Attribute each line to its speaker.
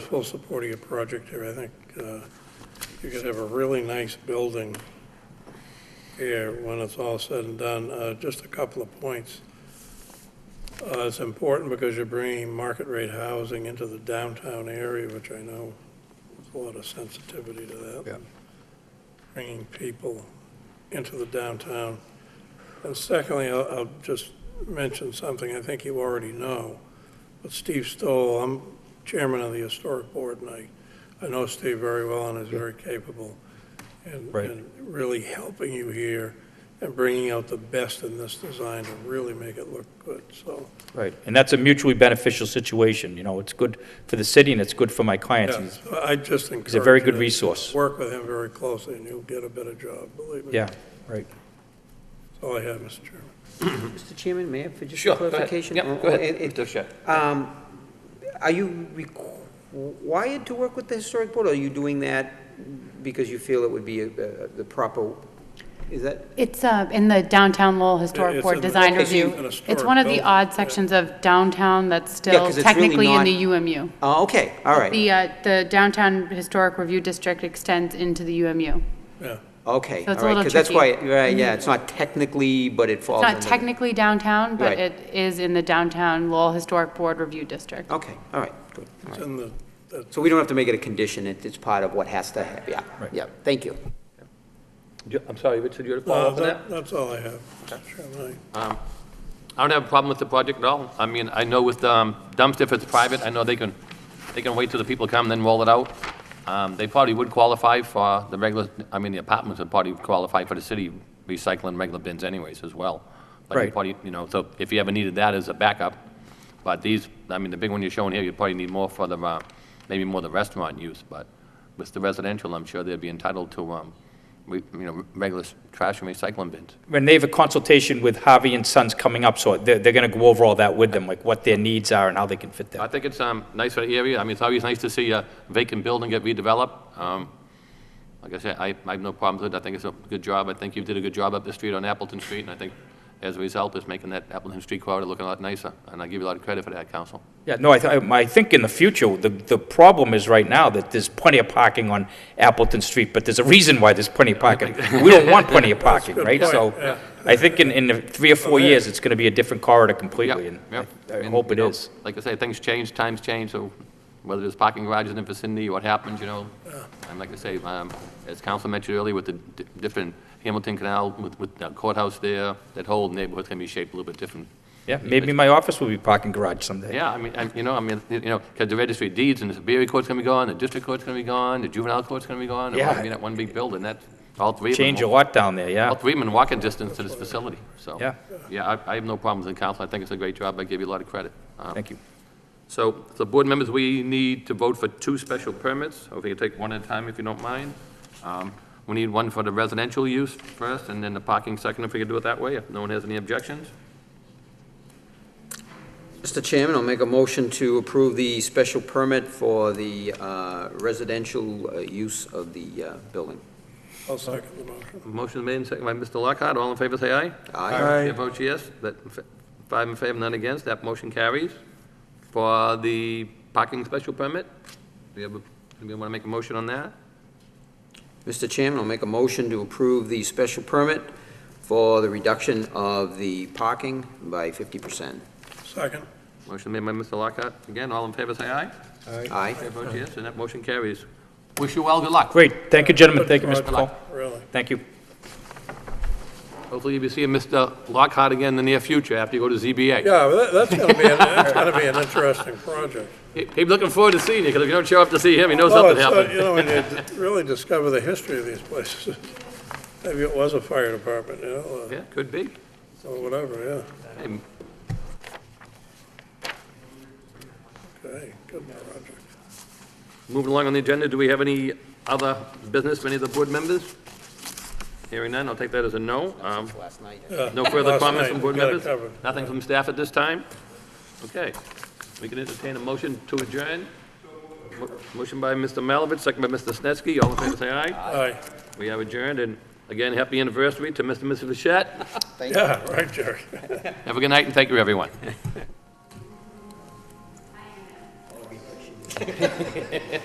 Speaker 1: full support of your project here. I think uh, you could have a really nice building here when it's all said and done. Uh, Just a couple of points. Uh, It's important because you're bringing market rate housing into the downtown area, which I know there's a lot of sensitivity to that.
Speaker 2: Yeah.
Speaker 1: Bringing people into the downtown. And secondly, I'll, I'll just mention something I think you already know. But Steve Stoll, I'm chairman of the historic board, and I, I know Steve very well and is very capable in,
Speaker 2: Right.
Speaker 1: in really helping you here and bringing out the best in this design to really make it look good, so.
Speaker 3: Right, and that's a mutually beneficial situation, you know, it's good for the city and it's good for my clients.
Speaker 1: yeah,
Speaker 3: He's-
Speaker 1: so I just encourage.
Speaker 3: He's a very
Speaker 1: you
Speaker 3: good
Speaker 1: to
Speaker 3: resource.
Speaker 1: Work with him very closely, and you'll get a better job, believe me.
Speaker 3: Yeah, right.
Speaker 1: That's all I have, Mr. Chairman.
Speaker 4: Mr. Chairman, may I, for just
Speaker 5: Sure,
Speaker 4: a
Speaker 5: go ahead.
Speaker 4: clarification?
Speaker 5: Yeah, go
Speaker 4: Uh,
Speaker 5: ahead,
Speaker 4: it-
Speaker 5: Mr. Shea.
Speaker 4: um, Are you required to work with the Historic Board, or are you doing that because you feel it would be uh, the proper, is that?
Speaker 6: It's uh, in the downtown Lowell
Speaker 1: It-
Speaker 6: Historic
Speaker 1: it's in
Speaker 6: Board
Speaker 1: the-
Speaker 6: Design
Speaker 1: Okay, so
Speaker 6: Review.
Speaker 1: it's an
Speaker 6: It's
Speaker 1: historic
Speaker 6: one of the
Speaker 1: building,
Speaker 6: odd
Speaker 1: yeah.
Speaker 6: sections of downtown that's still
Speaker 4: 'cause it's really
Speaker 6: technically in
Speaker 4: not-
Speaker 6: the UMU.
Speaker 4: Oh, okay, all right,
Speaker 6: The, uh, the Downtown Historic Review District extends into the UMU.
Speaker 1: Yeah.
Speaker 4: okay,
Speaker 6: So
Speaker 4: all
Speaker 6: it's a
Speaker 4: right,
Speaker 6: little
Speaker 4: because that's why,
Speaker 6: tricky. Mm-hmm.
Speaker 4: right, yeah, it's not technically, but it
Speaker 6: It's
Speaker 4: falls under.
Speaker 6: not technically downtown, but
Speaker 4: Right.
Speaker 6: it is in the Downtown Lowell Historic Board Review District.
Speaker 4: Okay, all right, good, all
Speaker 1: It's
Speaker 4: right.
Speaker 1: in the, that
Speaker 4: So we don't have to make it a condition, it- it's part of what has to, happen. yeah, yeah, thank you.
Speaker 5: Do- I'm sorry, Richard, you had a
Speaker 1: Uh,
Speaker 5: follow-up on
Speaker 1: that-
Speaker 5: that?
Speaker 1: That's all I have, Mr. Chairman.
Speaker 5: Um, I don't have a problem with the project at all. I mean, I know with um, dumpster, if it's private, I know they can, they can wait till the people come, then roll it out. Um, They probably would qualify for the regular, I mean, the apartments would probably qualify for the city recycling regular bins anyways as well. Like, you
Speaker 3: Right.
Speaker 5: probably, you know, so if you ever needed that as a backup, but these, I mean, the big one you're showing here, you probably need more for the, uh, maybe more the restaurant use, but with the residential, I'm sure they'd be entitled to, um, re- you know, regular s- trash and recycling bins.
Speaker 3: And they have a consultation with Harvey and Sons coming up, so they're, they're gonna go over all that with them, like what their needs are and how they can fit
Speaker 5: I
Speaker 3: that.
Speaker 5: think it's um, nice for the area. I mean, it's always nice to see a vacant building get redeveloped. Um, Like I said, I I have no problems with it. I think it's a good job. I think you did a good job up the street on Appleton Street, and I think as a result, it's making that Appleton Street corridor look a lot nicer, and I give you a lot of credit for that, council.
Speaker 3: Yeah, no, I, th- I- I think in the future, the, the problem is right now that there's plenty of parking on Appleton Street, but there's a reason why there's plenty of parking. We don't want plenty of parking,
Speaker 1: good
Speaker 3: right?
Speaker 1: point, yeah.
Speaker 3: So I think in, in the three or four
Speaker 1: yeah.
Speaker 3: years, it's gonna be a different corridor
Speaker 5: Yeah,
Speaker 3: completely, and
Speaker 5: yeah.
Speaker 3: I- I
Speaker 5: And,
Speaker 3: hope it
Speaker 5: you know,
Speaker 3: is.
Speaker 5: Like I say, things change, times change, so whether there's parking garages in the vicinity, what happens, you know? And like I say, um, as council mentioned earlier, with the di- different Hamilton Canal, with with the courthouse there, that whole neighborhood's going to be shaped a little bit different.
Speaker 3: Yeah, maybe my office will be parking garage someday.
Speaker 5: Yeah, I mean, and, you know, I mean, you know, because the registry of deeds and the Superior Court's gonna be gone, the District Court's gonna be gone, the Juvenile Court's gonna be gone. It'll
Speaker 3: Yeah.
Speaker 5: all be that one big building, that, all three of them.
Speaker 3: Change a
Speaker 5: will-
Speaker 3: lot down there, yeah.
Speaker 5: All three of them in walking distance to this facility, so.
Speaker 3: Yeah.
Speaker 5: Yeah, I, I have no problems in council. I think it's a great job. I give you a lot of credit. Um,
Speaker 3: Thank you.
Speaker 5: So, so board members, we need to vote for two special permits. If we can take one at a time, if you don't mind. Um, We need one for the residential use first, and then the parking second, if we can do it that way, if no one has any objections.
Speaker 4: Mr. Chairman, I'll make a motion to approve the special permit for the uh, residential uh, use of the uh, building.
Speaker 1: I'll second the motion.
Speaker 5: Motion made and seconded by Mr. Lockhart. All in favor, say aye.
Speaker 4: Aye.
Speaker 5: Chair votes yes. That, five in favor, none against. That motion carries. For the parking special permit, do you have, a- anybody want to make a motion on that?
Speaker 4: Mr. Chairman, I'll make a motion to approve the special permit for the reduction of the parking by 50%.
Speaker 1: Second.
Speaker 5: Motion made by Mr. Lockhart. Again, all in favor, say aye.
Speaker 4: Aye.
Speaker 5: Chair votes yes, and that motion carries. Wish you all good luck.
Speaker 3: Great, thank you, gentlemen, thank you, Mr.
Speaker 1: Good
Speaker 3: Paul.
Speaker 1: project, Really.
Speaker 3: Thank you.
Speaker 5: Hopefully you'll be seeing Mr. Lockhart again in the near future after you go to ZBA.
Speaker 1: Yeah, that- that's going to be, an- that's going to be an interesting project.
Speaker 5: He- He'd be looking forward to seeing you, because if you don't show up to see him, he knows
Speaker 1: Well, it's,
Speaker 5: something
Speaker 1: uh,
Speaker 5: happened.
Speaker 1: You know, and you really discover the history of these places. Maybe it was a fire department, you know,
Speaker 5: Yeah, could be.
Speaker 1: uh, or whatever,
Speaker 5: Hey,
Speaker 1: yeah. Okay, good project.
Speaker 5: Moving along on the agenda, do we have any other business, from any of the board members? Hearing none, I'll take that as a no. Um,
Speaker 4: Last night.
Speaker 5: No further
Speaker 1: Last
Speaker 5: comments
Speaker 1: night,
Speaker 5: from board
Speaker 1: got it
Speaker 5: members?
Speaker 1: covered.
Speaker 5: Nothing from staff at this time? Okay. We can entertain a motion to adjourn. Mo- Motion by Mr. Malovich, second by Mr. Snetsky. All in favor, say aye.
Speaker 1: Aye.
Speaker 5: We have adjourned, and again, happy anniversary to Mr. and Mrs. Vichette.
Speaker 1: Yeah, right, Jerry.
Speaker 5: Have a good night, and thank you, everyone.